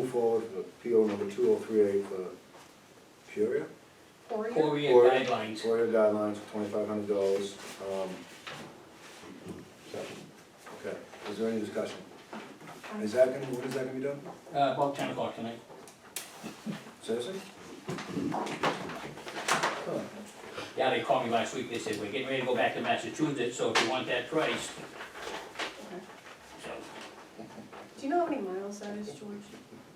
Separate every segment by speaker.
Speaker 1: board for PO number two oh three eight for Peoria.
Speaker 2: Poria?
Speaker 3: Korean
Speaker 1: Or-
Speaker 3: guidelines. uh,
Speaker 1: Peoria guidelines for twenty-five hundred dollars. um, Okay, is there any discussion? Is that gonna, when is that gonna be done?
Speaker 3: Uh, about ten o'clock tonight.
Speaker 1: Seriously? Huh.
Speaker 3: Yeah, they called me last week, they said, we're getting ready to go back to Massachusetts, so if you want that price,
Speaker 2: Okay.
Speaker 3: so,
Speaker 2: Do you know how many miles that is, George?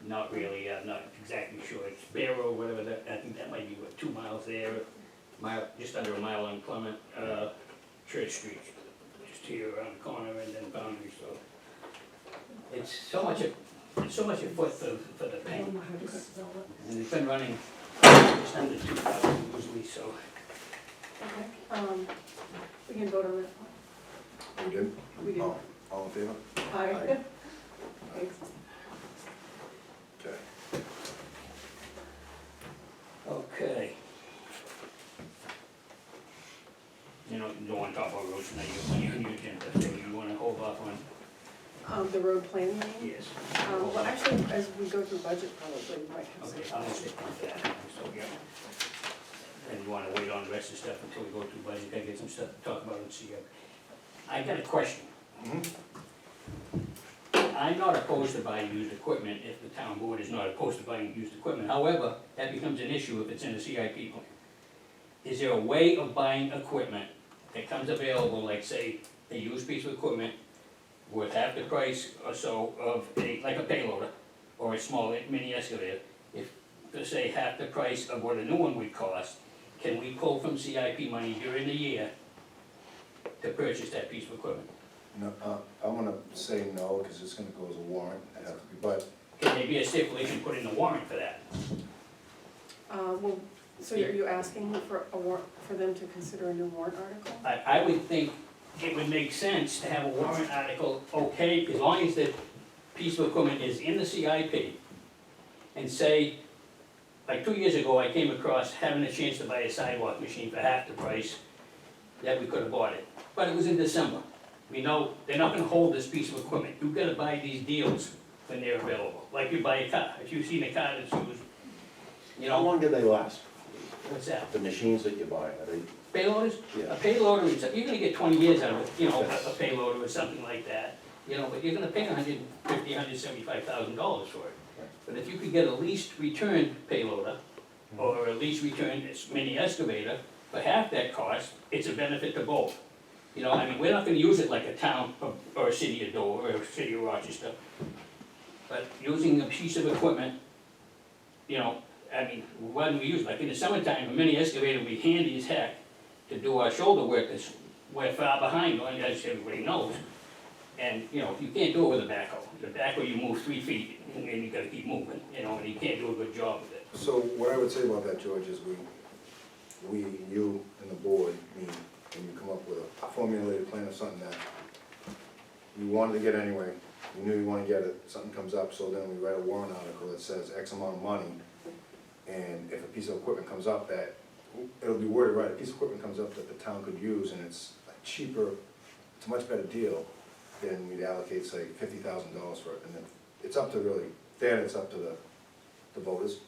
Speaker 3: not really, I'm not exactly sure, it's Barrow, whatever, that, I think that might be, what, two miles there, mile, just under a mile on Clement, uh, Church Street, just here around the corner and then boundary, so. It's so much a, it's so much a foot for, for the
Speaker 2: I
Speaker 3: paint,
Speaker 2: don't know how to spell it.
Speaker 3: and it's been running just under two thousand usually, so.
Speaker 2: Okay, um, we can vote on that.
Speaker 1: We did?
Speaker 2: We did.
Speaker 1: All Oh, all in favor?
Speaker 2: Aye. Thanks.
Speaker 1: Okay.
Speaker 3: Okay. You know, you don't wanna talk about roads tonight, you, you, you, agenda, so you wanna hold off on,
Speaker 2: Um, the road planning, meeting?
Speaker 3: yes.
Speaker 2: um,
Speaker 3: hold
Speaker 2: well,
Speaker 3: off.
Speaker 2: actually, as we go through budget, probably, we might have some.
Speaker 3: Okay, I'm gonna stick with that, so, yeah. And you wanna wait on the rest of the stuff until we go through budget, gotta get some stuff to talk about and see. uh, I got a question.
Speaker 1: Mhm.
Speaker 3: I'm not opposed to buying used equipment if the town board is not opposed to buying used equipment, however, that becomes an issue if it's in the CIP plan. Is there a way of buying equipment that comes available, like say, a used piece of equipment worth half the price or so of a, like a payloader or a small mini excavator, if, to say, half the price of what a new one would cost, can we pull from CIP money during the year to purchase that piece of equipment?
Speaker 1: No, uh, I wanna say no, cause it's gonna go as a warrant, uh, but
Speaker 3: Can there be a stipulation put in the warrant for that?
Speaker 2: Uh, well, so are you asking for a war, for them to consider a new warrant article?
Speaker 3: I, I would think it would make sense to have a warrant article, okay, as long as the piece of equipment is in the CIP. And say, like two years ago, I came across having a chance to buy a sidewalk machine for half the price that we could have bought it, but it was in December. We know, they're not gonna hold this piece of equipment, you've gotta buy these deals when they're available, like you buy a car, if you've seen a car that's used, you
Speaker 4: How
Speaker 3: know,
Speaker 4: long do they last?
Speaker 3: what's that?
Speaker 4: The machines that you buy, are they,
Speaker 3: Payloaders,
Speaker 4: yeah.
Speaker 3: a payloader, is- you're gonna get twenty years out of it, you know, a a payloader or something like that, you know, but you're gonna pay $150,000, hundred and fifty, hundred seventy-five thousand dollars for it.
Speaker 4: Right.
Speaker 3: But if you could get a leased return payloader, or a leased return s- mini excavator, for half that cost, it's a benefit to both. You know, I mean, we're not gonna use it like a town or, or a city of Dover or a city of Rochester, but using a piece of equipment, you know, I mean, why do we use, it? like in the summertime, a mini excavator would be handy as heck, to do our shoulder work, that's we're far behind on, as everybody knows. And, you know, you can't do it with a backhoe, the backhoe you move three feet, and you gotta keep moving, you know, and you can't do a good job with it.
Speaker 1: So what I would say about that, George, is we, we, you and the board, mean, and you come up with a formulated plan of something that you wanted to get anyway, you knew you wanna get it, something comes up, so then we write a warrant article that says X amount of money. And if a piece of equipment comes up that, it'll be worded right, a piece of equipment comes up that the town could use and it's a cheaper, it's a much better deal, then we'd allocate, say, fifty thousand dollars for it, and then it's up to really, then it's up to the, the voters.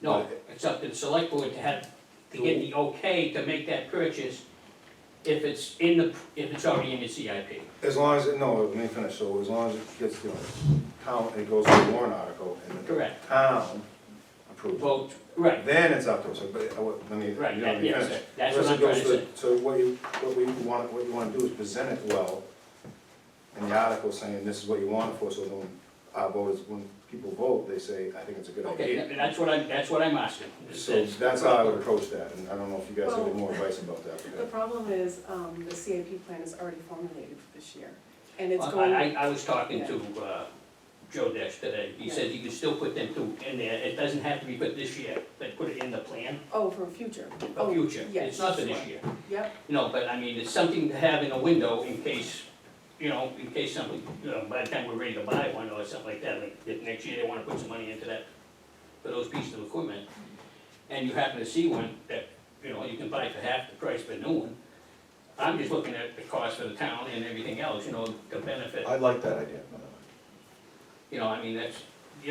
Speaker 3: No, it's up to the select board to have, to get the okay to make that purchase if it's in the, if it's already in the CIP.
Speaker 1: As long as, it no, let me finish, so as long as it gets, you know, town, it goes to the warrant article and the
Speaker 3: Correct.
Speaker 1: town approves. it.
Speaker 3: Vote, right,
Speaker 1: Then it's up to us, but, I would- let me, you know, let
Speaker 3: Right,
Speaker 1: me
Speaker 3: that- yes,
Speaker 1: finish.
Speaker 3: that's what
Speaker 1: Unless it
Speaker 3: I'm trying
Speaker 1: goes
Speaker 3: to
Speaker 1: to- So what you, what we want, what you wanna do is present it well in the article saying this is what you want it for, so when our voters, when people vote, they say, I think it's a good
Speaker 3: okay,
Speaker 1: idea.
Speaker 3: tha- that's what I'm, that's what I'm asking. It
Speaker 1: So
Speaker 3: says-
Speaker 1: that's how I would approach that, and I don't know if you guys have any
Speaker 2: Well-
Speaker 1: more advice about that. but
Speaker 2: The problem is, um, the CIP plan is already formulated for this year, and it's
Speaker 3: Well, I,
Speaker 2: going.
Speaker 3: I I was talking to, uh, Joe Desh today, he
Speaker 2: Yeah.
Speaker 3: said you can still put them two in there, it doesn't have to be put this year, but put it in the plan
Speaker 2: Oh, for future.
Speaker 3: for
Speaker 2: Oh,
Speaker 3: future,
Speaker 2: yes,
Speaker 3: it's not for this
Speaker 2: sure.
Speaker 3: year.
Speaker 2: Yep,
Speaker 3: No, but I mean, it's something to have in a window in case, you know, in case something, you know, by the time we're ready to buy one or something like that, like, if next year they wanna put some money into that, for those pieces of equipment, and you happen to see one that, you know, you can buy for half the price of a new one, I'm just looking at the cost for the town and everything else, you know, the benefit.
Speaker 4: I like that idea. by the way.
Speaker 3: You know, I mean, that's,